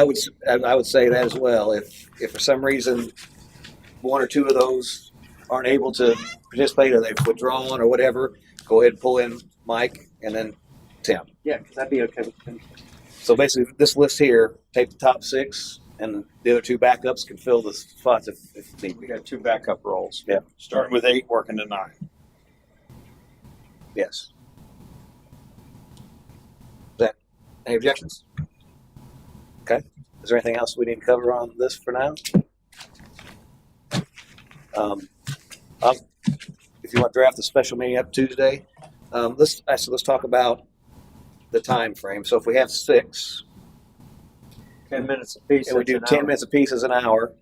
I would, s- I I would say that as well. If, if for some reason, one or two of those aren't able to participate or they've withdrawn or whatever, go ahead and pull in Mike and then Tim. Yeah, because I'd be okay with them. So basically, this list here, take the top six and the other two backups can fill the spots if, if need We be. got two backup roles. Yeah. Starting with eight, working to nine. Yes. That, any objections? Okay, is there anything else we need to cover on this for now? Um, I'll- If you want to draft the special meeting up Tuesday, um, let's, actually, let's talk about the time frame. So if we have six, Ten minutes apiece. and we do ten minutes apiece as an hour,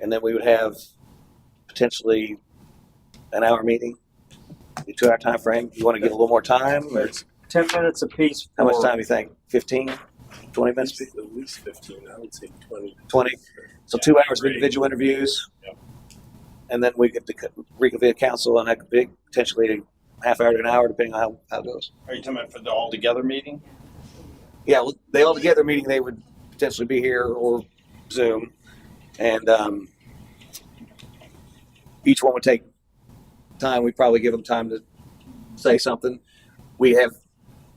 and then we would have potentially an hour meeting, a two-hour time frame. You want to give a little more time, or? Ten minutes apiece. How much for- time do you think? 15, 20 At minutes? least- at least fifteen, I would say twenty. 20? So two hours of individual interviews? Yep. And then we get to co- reconvene council and that could be potentially a half hour to an hour, depending on how, how it goes. Are you talking about for the all-together meeting? Yeah, well, they all together meeting, they would potentially be here or Zoom. And um, each one would take time. We'd probably give them time to say something. We have,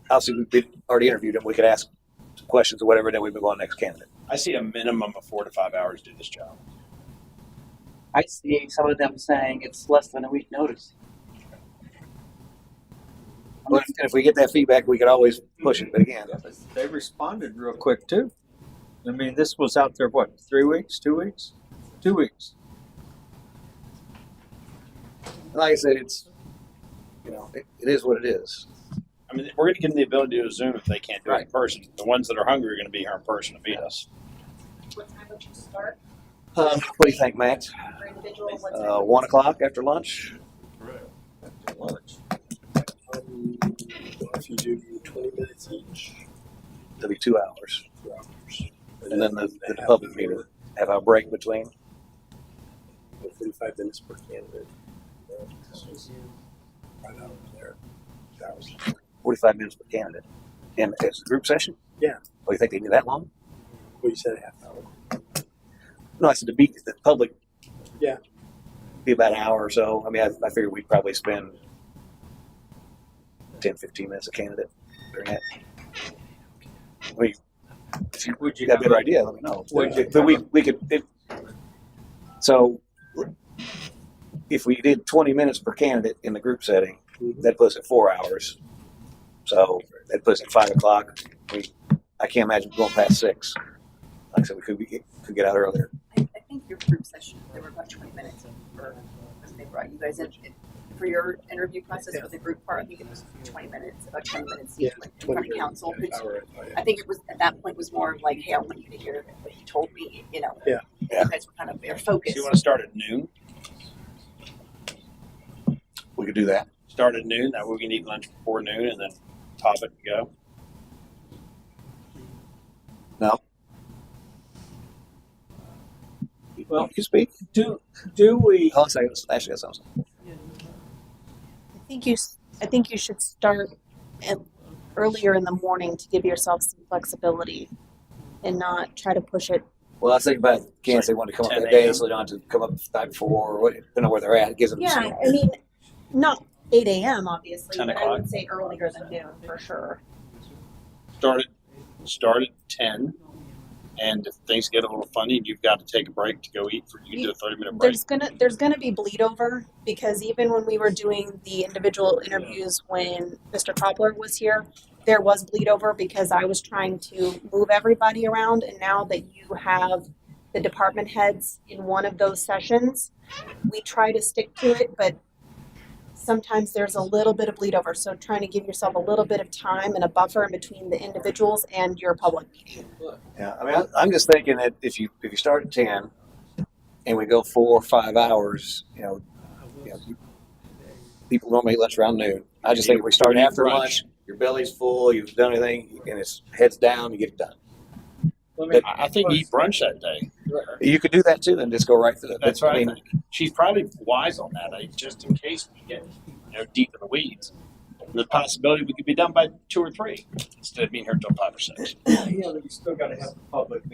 obviously, we've been- already interviewed them. We could ask questions or whatever, then we move on to the next candidate. I see a minimum of four to five hours to do this job. I see some of them saying it's less than a week notice. I'm But not- if, if we get that feedback, we could always push it. But again, They responded real quick too. I mean, this was out there, what, three weeks, two weeks? Two weeks. like I said, it's you know it, it is what it is. I mean, we're going to give them the ability to do a Zoom if they can't do it in Right. person. The ones that are hungry are going to be here in person to feed us. What time would you start Um, what do you think, Max? for individual? What time Uh, one o'clock after lunch. Um, If you do twenty minutes each, It'll be two hours, two hours. and then the, the half public an meeting. hour, Have our break between. and Forty-five minutes per candidate. Right out of there. That was- Forty-five minutes per candidate, and it's a group session. Yeah. Oh, you think they need that long? Well, you said a half hour. No, I said to beat the public. Yeah. Be about an hour or so. I mean, I, I figured we'd probably spend 10, 15 minutes a candidate during that. I mean, if you Would you got a have better a- idea, let me know. Would you- But we, we could, if, so if we did twenty minutes per candidate in the group setting, Mhm. that puts it four hours. So that puts it five o'clock. We, I can't imagine going past six. Like I said, we could be, could get out earlier. I, I think your group session, there were about twenty minutes for, because they brought you guys in, for your interview process for the group part, I think it was twenty minutes, about ten minutes each, like, in front of council. Half hour, oh, yeah. I think it was, at that point was more of like, hey, I want you to hear what he told me, you know? Yeah. Yeah. You guys were kind of, their So focus. you want to start at noon? We could do that. Start at noon. That way we can eat lunch before noon and then top it and go. Well- you speak. Do, do we? Hold on a second. Ashley got something. I think you, s- I think you should start at, earlier in the morning to give yourself some flexibility and not try to push it. Well, I was thinking about can't they want to come up 10 that day, a.m. so they don't have to come up the night before or what, depending on where they're at. It gives them some- I mean, not eight a.m. obviously, 10 but I o'clock. would say earlier than noon for sure. Start at, start at 10. And if things get a little funny and you've got to take a break to go eat, for you do a 30 minute break. There's gonna there's gonna be bleed over because even when we were doing the individual interviews when Mr. Cobbler was here, there was bleed over because I was trying to move everybody around and now that you have the department heads in one of those sessions, we try to stick to it, but sometimes there's a little bit of bleed over. So trying to give yourself a little bit of time and a buffer in between the individuals and your public meeting. Yeah, I mean, I- I'm just thinking that if you if you start at ten, and we go four or five hours, you know, you know people normally eat lunch around noon. I just think if we start You eat after brunch. lunch, your belly's full, you've done anything, and it's heads down, you get it done. I I think eat brunch that day. You could do that too, then just go right through. it. That's I right. I mean, think. She's probably wise on that, I, just in case we get you know deep in the weeds. the possibility we could be done by two or three instead of being here till five or six. Yeah, we still gotta have the public